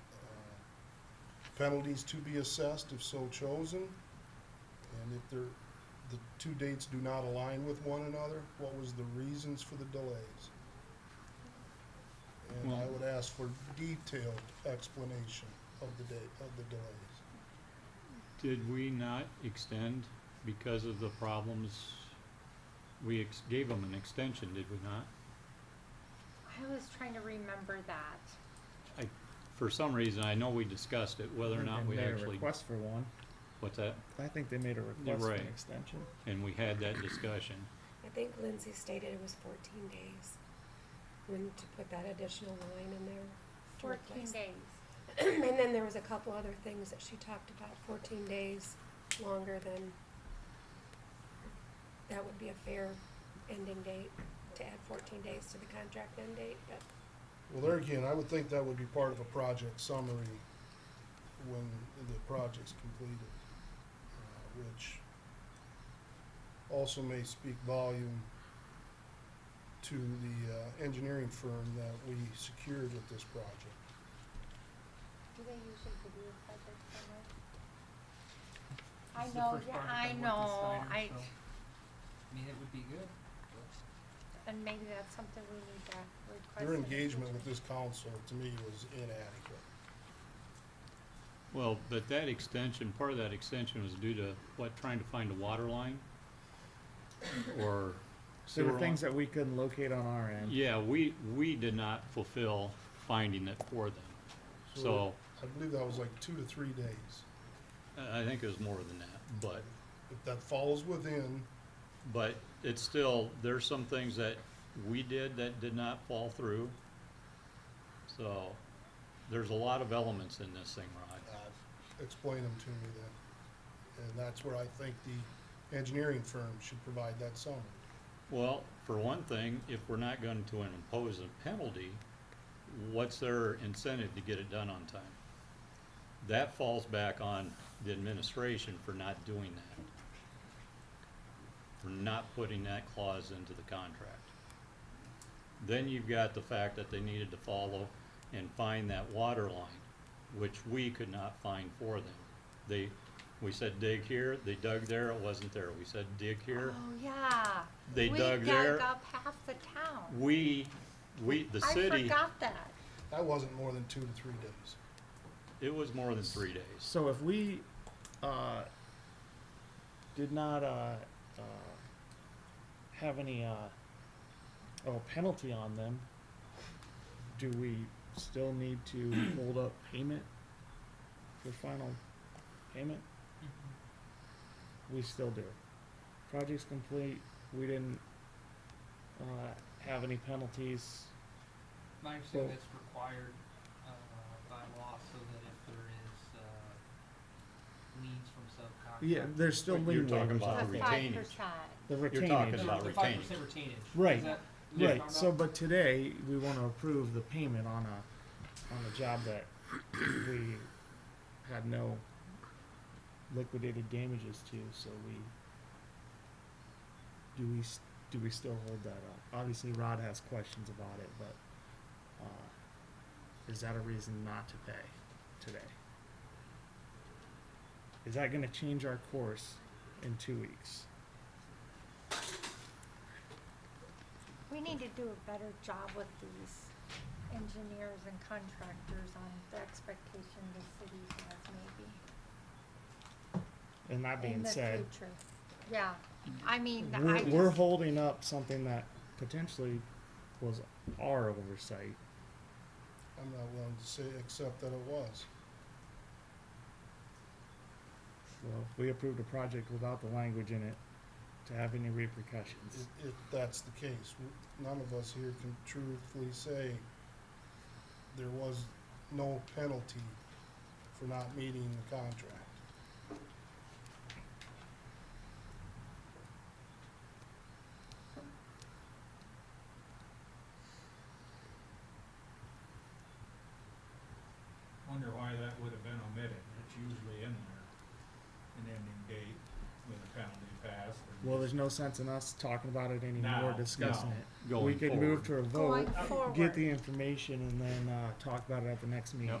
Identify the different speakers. Speaker 1: Uh, Penalties to be assessed if so chosen. And if there, the two dates do not align with one another, what was the reasons for the delays? And I
Speaker 2: Well-
Speaker 1: would ask for detailed explanation of the date, of the delays.
Speaker 2: Did we not extend because of the problems? We ex- gave them an extension, did we not?
Speaker 3: I was trying to remember that.
Speaker 2: For some reason, I know we discussed it, whether or
Speaker 4: think
Speaker 2: not
Speaker 4: they
Speaker 2: we
Speaker 4: made a
Speaker 2: actually,
Speaker 4: Request for one.
Speaker 2: what's that?
Speaker 4: I think they made a request for
Speaker 2: right.
Speaker 4: an extension.
Speaker 2: And we had that discussion.
Speaker 5: I think Lindsay stated it was fourteen days, when to put that additional line in there. to
Speaker 3: Fourteen
Speaker 5: replace-
Speaker 3: days.
Speaker 5: And then there was a couple other things that she talked about, fourteen days longer than, that would be a fair ending date, to add fourteen days to the contract end date, but
Speaker 1: Well, there again, I would think that would be part of a project summary when the project's completed, uh, which also may speak volume to the uh, engineering firm that we secured with this project.
Speaker 3: Do they usually give you a project summary?
Speaker 6: This
Speaker 3: I
Speaker 6: is the
Speaker 3: know,
Speaker 6: first
Speaker 3: yeah,
Speaker 6: project
Speaker 3: I
Speaker 6: I've worked with
Speaker 3: know,
Speaker 6: Steiner,
Speaker 3: I,
Speaker 6: so, I mean, it would be good.
Speaker 3: and maybe that's something we need to request.
Speaker 1: Their
Speaker 3: in the
Speaker 1: engagement with
Speaker 3: future.
Speaker 1: this council, to me, was inadequate.
Speaker 2: Well, but that extension, part of that extension was due to, what, trying to find a water line? Or
Speaker 4: There
Speaker 2: sewer
Speaker 4: were
Speaker 2: line?
Speaker 4: things that we couldn't locate on our end.
Speaker 2: Yeah, we, we did not fulfill finding it for them. So,
Speaker 1: I believe that was like two to three days.
Speaker 2: I I think it was more than that, but
Speaker 1: If that falls within,
Speaker 2: But it's still, there's some things that we did that did not fall through. So, there's a lot of elements in this thing, Rod.
Speaker 1: uh, explain them to me then. And that's where I think the engineering firm should provide that summary.
Speaker 2: Well, for one thing, if we're not going to impose a penalty, what's their incentive to get it done on time? That falls back on the administration for not doing that. For not putting that clause into the contract. Then you've got the fact that they needed to follow and find that water line, which we could not find for them. They, we said dig here, they dug there, it wasn't there. We said dig here,
Speaker 3: Oh, yeah.
Speaker 2: They dug there.
Speaker 3: We dug up half the town.
Speaker 2: we, we, the
Speaker 3: I
Speaker 2: city,
Speaker 3: forgot that.
Speaker 1: That wasn't more than two to three days.
Speaker 2: it was more than three days.
Speaker 4: So if we, uh, did not, uh, uh, have any, uh, oh, penalty on them, do we still need to hold up payment for final payment? We still do. Project's complete, we didn't, uh, have any penalties.
Speaker 6: My
Speaker 4: Well-
Speaker 6: understanding that's required, uh, by law, so that if there is, uh, liens from subcontractors.
Speaker 4: Yeah, there's still
Speaker 2: But you're
Speaker 4: lien
Speaker 2: talking
Speaker 4: waivers
Speaker 2: about
Speaker 4: on
Speaker 3: The
Speaker 2: the
Speaker 4: it.
Speaker 3: five
Speaker 2: retainage.
Speaker 3: percent.
Speaker 4: The
Speaker 2: You're
Speaker 4: retainage.
Speaker 2: talking
Speaker 6: There's
Speaker 2: about
Speaker 6: a five
Speaker 2: retainage.
Speaker 6: percent retainage. Is
Speaker 4: Right.
Speaker 6: that- is that
Speaker 4: Right,
Speaker 6: about-
Speaker 4: so, but today, we wanna approve the payment on a, on a job that we had no liquidated damages to, so we, do we, s- do we still hold that up? Obviously, Rod has questions about it, but, uh, is that a reason not to pay today? Is that gonna change our course in two weeks?
Speaker 3: We need to do a better job with these engineers and contractors on the expectation the city has maybe.
Speaker 4: And that being said.
Speaker 3: In the future, yeah, I mean, I
Speaker 4: we're, we're
Speaker 3: just,
Speaker 4: holding up something that potentially was our oversight.
Speaker 1: I'm not willing to say, except that it was.
Speaker 4: Well, we approved a project without the language in it to have any repercussions.
Speaker 1: If, if that's the case, w- none of us here can truthfully say there was no penalty for not meeting the contract.
Speaker 7: Wonder why that would have been omitted, it's usually in there, an ending date with a penalty passed. and
Speaker 4: Well, there's no sense in us talking about it anymore,
Speaker 7: Now,
Speaker 4: discussing
Speaker 7: no.
Speaker 4: it.
Speaker 2: Going
Speaker 4: we can
Speaker 2: forward.
Speaker 4: move to a vote,
Speaker 3: going forward.
Speaker 4: get the information, and then uh, talk about it at the next meeting.
Speaker 2: Yep.